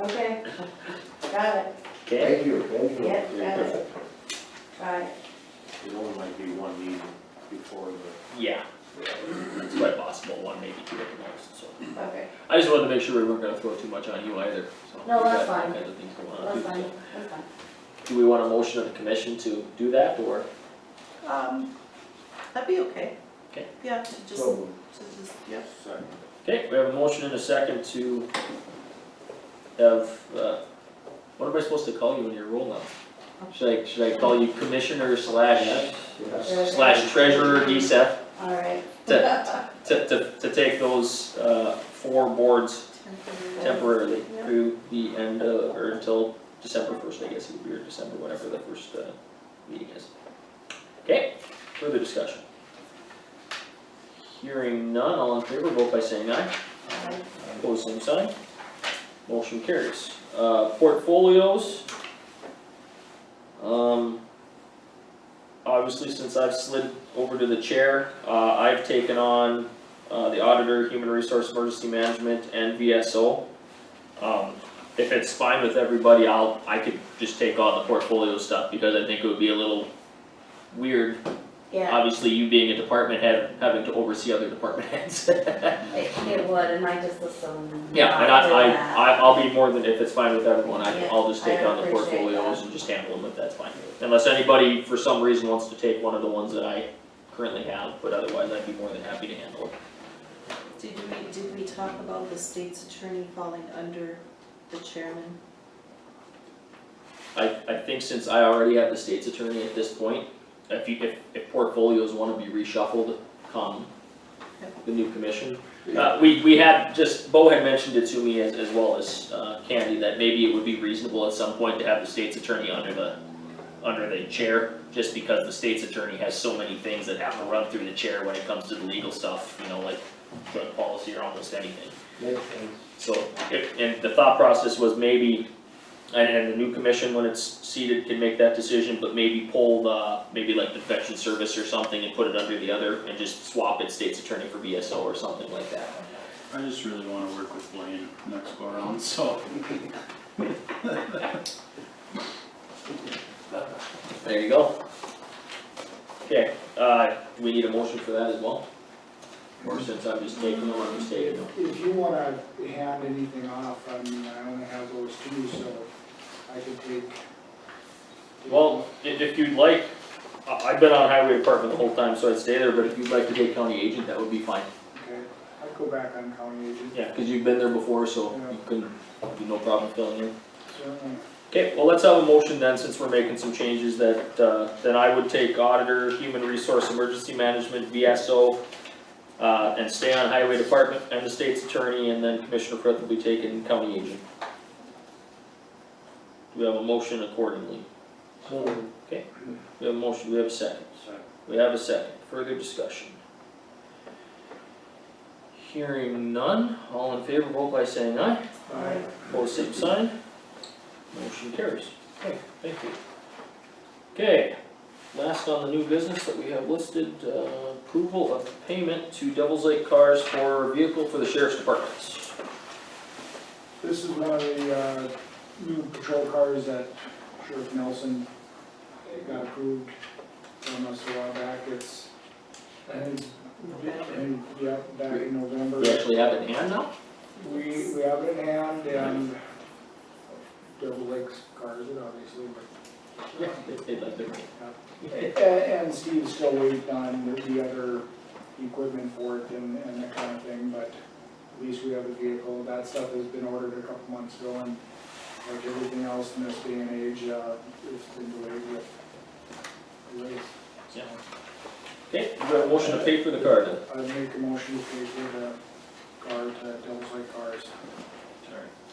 Okay, got it, Okay? Thank you, thank you. yeah, got it. Got it, It only might be one meeting before the, Yeah, it's quite possible, one, maybe two at the most, so. okay, I just wanted to make sure we weren't gonna throw too much on you either, so. No, we that's got all fine. kinds of things going on, That's too, fine, so. that's fine. Do we want a motion of the commission to do that, or? Um, that'd be okay. Okay. Yeah, to just, to So, just, yeah. second. Okay, we have a motion and a second to have, uh, what am I supposed to call you in your role now? Should I, should I call you commissioner slash, yes. uh, slash treasurer DCF all right. to, to, to, to take those, uh, four boards temporarily Yeah. through the end of, or until December first, I guess it would be, or December, whatever the first, uh, meeting is. Okay, further discussion. Hearing none, all in favor, vote by saying aye. Aye. Opposed, same sign. Motion carries. Uh, portfolios. Um, obviously, since I've slid over to the chair, uh, I've taken on, uh, the auditor, human resource emergency management, and VSO. Um, if it's fine with everybody, I'll, I could just take on the portfolio stuff, because I think it would be a little weird Yeah, obviously you being a department head, having to oversee other department heads. it, it would, and I just assumed. Yeah, and not do I, I, that. I- I'll be more than, if it's fine with everyone, I, Yeah, I'll just take I on the appreciate portfolios that. and just handle them if that's fine. Unless anybody for some reason wants to take one of the ones that I currently have, but otherwise I'd be more than happy to handle it. Did we, did we talk about the state's attorney falling under the chairman? I, I think since I already have the state's attorney at this point, if you, if, if portfolios wanna be reshuffled, come the new commission, Uh, we, we had, just, Bo had mentioned it to me as, as well as, uh, Candy, that maybe it would be reasonable at some point to have the state's attorney under the, under the chair, just because the state's attorney has so many things that have to run through the chair when it comes to the legal stuff, you know, like drug policy or almost anything. Makes sense. So, if, and the thought process was maybe, and, and the new commission, when it's seated, can make that decision, but maybe pull the, maybe like the veteran service or something and put it under the other, and just swap it state's attorney for BSO or something like that. I just really wanna work with Blaine next go around, so. There you go. Okay, uh, do we need a motion for that as well? Or since I'm just taking over, I'm just taking over. If you wanna hand anything off, I mean, I only have those two, so I can take. Well, i- if you'd like, I, I've been on highway department the whole time, so I'd stay there, but if you'd like to take county agent, that would be fine. Okay, I'd go back on county agent, Yeah, cause you've been there before, so you can, be no problem filling in. certainly. Okay, well, let's have a motion then, since we're making some changes that, uh, then I would take auditor, human resource, emergency management, VSO, uh, and stay on highway department and the state's attorney, and then Commissioner Frith will be taking county agent. Do we have a motion accordingly? So, We have a motion, we have a second. We have a second, further discussion. Hearing none, all in favor, vote by saying aye. Aye. Pose same sign. Motion carries. Okay, thank you. Okay, last on the new business that we have listed, uh, approval of payment to Devils Lake Cars for vehicle for the sheriff's departments. This is one of the, uh, new patrol cars that Sheriff Nelson got approved from us a while back, it's, and, and, yeah, back in November. We actually have it in hand now? We, we have it in hand and Double Lakes cars it obviously, but. They paid like they're- And, and Steve's still waiting on the other equipment for it and, and that kind of thing, but at least we have a vehicle. That stuff has been ordered a couple months ago and like everything else in this day and age, uh, it's been delayed with delays. Yeah. Okay, we have a motion to pay for the car then. I'd make a motion to pay for the car to Devil's Lake Cars.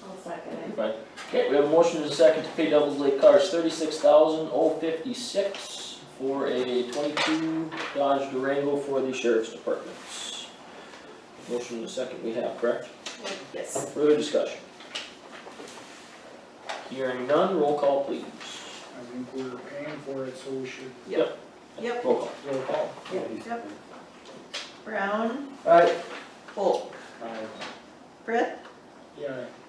I'll second it. Right. Okay, we have a motion and a second to pay Devils Lake Cars thirty-six thousand oh fifty-six for a twenty-two Dodge Durango for the sheriff's departments. Motion and a second we have, correct? Yes. Further discussion? Hearing none, roll call please. I think we're paying for it, so we should Yep. Roll call. roll call. Yep. Brown, Aye. Volk, Aye. Brett, Yeah.